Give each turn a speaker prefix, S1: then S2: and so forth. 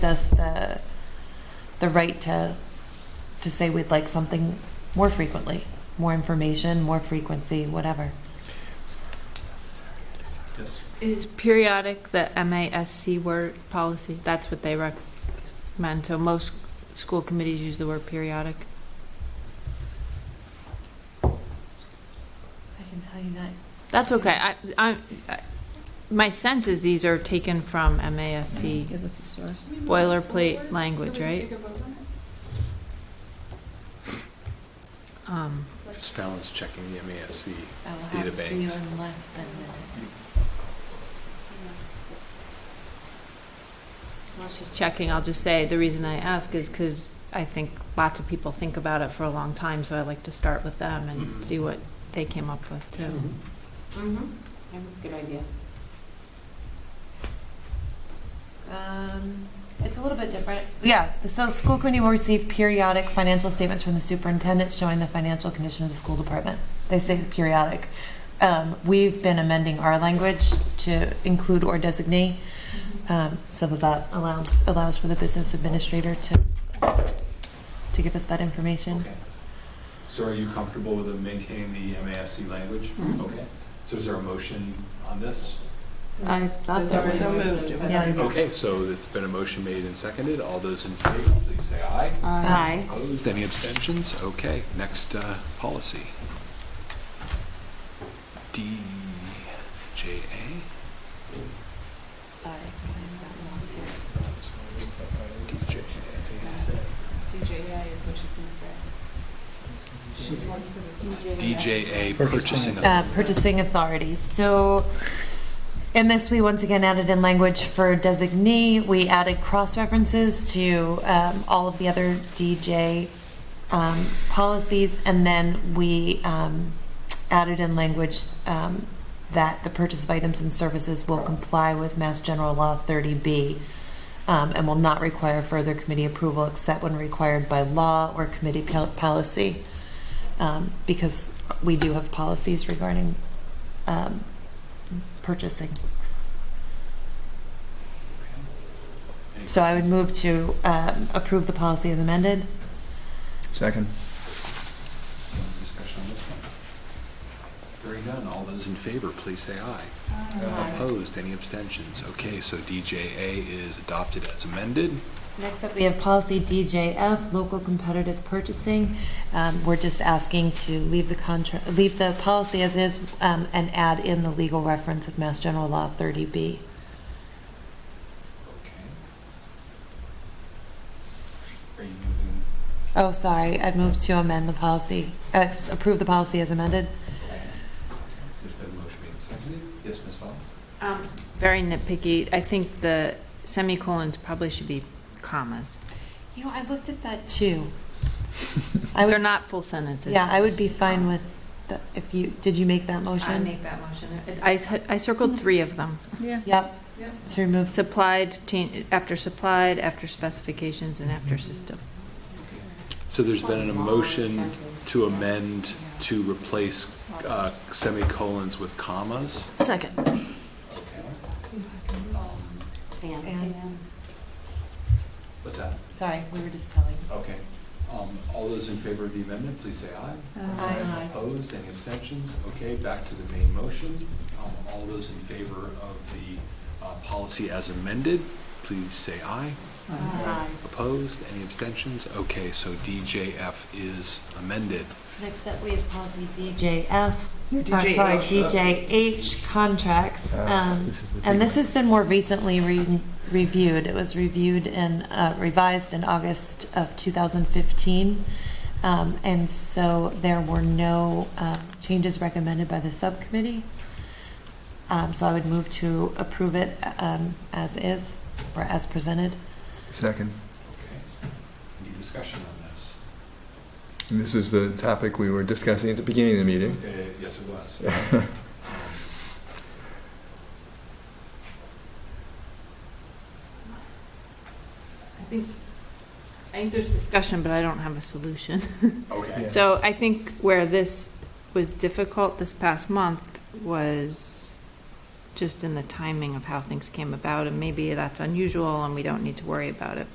S1: us the, the right to, to say we'd like something more frequently, more information, more frequency, whatever.
S2: Yes.
S3: Is periodic the MASC word policy? That's what they recommend. So most school committees use the word periodic.
S1: I can tell you that.
S3: That's okay. I, I, I- my sense is these are taken from MASC boilerplate language, right? Um,
S2: Because Fallon's checking the MASC.
S1: I will
S2: Data
S1: have for you
S2: banks.
S1: in less than a minute.
S3: While she's checking, I'll just say, the reason I ask is because I think lots of people think about it for a long time, so I like to start with them and
S2: Mhm.
S3: see what they came up with too.
S4: Yeah, that's a good idea.
S1: Um, it's a little bit different. Yeah, the so school committee will receive periodic financial statements from the superintendent showing the financial condition of the school department. They say periodic. Um, we've been amending our language to include or designate,
S3: Mm-hmm.
S1: um, so that that allows, allows for the business administrator to, to give us that information.
S2: Okay. So are you comfortable with maintaining the MASC language? Okay. So is there a motion on this?
S3: I thought
S4: There's
S3: that
S4: already-
S3: was. Yeah.
S2: Okay, so it's been a motion made and seconded. All those in favor, please say aye.
S3: Aye.
S2: Opposed, any abstentions? Okay, next uh, policy. DJA?
S1: Sorry, I got lost here. DJI is what she's gonna say.
S2: DJA,
S5: Purchasing.
S2: purchasing.
S1: uh, purchasing authorities. So in this, we once again added in language for designee. We added cross references to um, all of the other DJ um, policies, and then we um, added in language um, that the purchase of items and services will comply with Mass General Law 30B. Um, and will not require further committee approval except when required by law or committee pol- policy um, because we do have policies regarding um, purchasing.
S2: Any
S1: So I would move to um, approve the policy as amended.
S5: Second.
S2: Discussion on this one? Hearing none, all those in favor, please say aye. Opposed, any abstentions? Okay, so DJA is adopted as amended.
S1: Next up, we have policy DJF, local competitive purchasing. Um, We're just asking to leave the contract, leave the policy as is um, and add in the legal reference of Mass General Law 30B.
S2: Okay. Are you moving?
S1: Oh, sorry, I moved to amend the policy, uh, approve the policy as amended.
S2: There's been a motion made and seconded. Yes, Ms. Fox?
S3: Um, Very nitpicky. I think the semicolons probably should be commas.
S1: You know, I looked at that too. I would
S3: They're not full sentences.
S1: Yeah, I would be fine with, the- if you, did you make that motion?
S3: that motion. I, c- I circled three of them.
S1: Yep. To remove,
S3: Supplied, change, after supplied, after specifications, and after system.
S2: So there's been a motion to amend to replace uh, semicolons with commas.
S6: Second.
S1: And-
S2: What's that?
S1: sorry, we were just telling.
S2: Okay. Um, All those in favor of the amendment, please say aye.
S1: Aye.
S2: Opposed, any abstentions? Okay, back to the main motion. Um, All those in favor of the uh, policy as amended, please say aye. Opposed, any abstentions? Okay, so DJF is amended.
S1: Next up, we have policy DJF,
S6: Your
S1: I'm sorry,
S6: DJH.
S1: DJH
S5: Uh,
S1: contracts. Um, And this has been more recently re- reviewed. It was reviewed and uh, revised in August of 2015. Um, And so there were no uh, changes recommended by the subcommittee. Um, So I would move to approve it um, as is, or as presented.
S5: Second.
S2: Okay. Any discussion on this?
S5: And This is the topic we were discussing at the beginning of the meeting.
S2: Uh, Yes, it was. Um,
S3: I think, I think there's discussion, but I don't have a solution.
S2: Okay.
S3: So I think where this was difficult this past month was just in the timing of how things came about, and maybe that's unusual and we don't need to worry about it,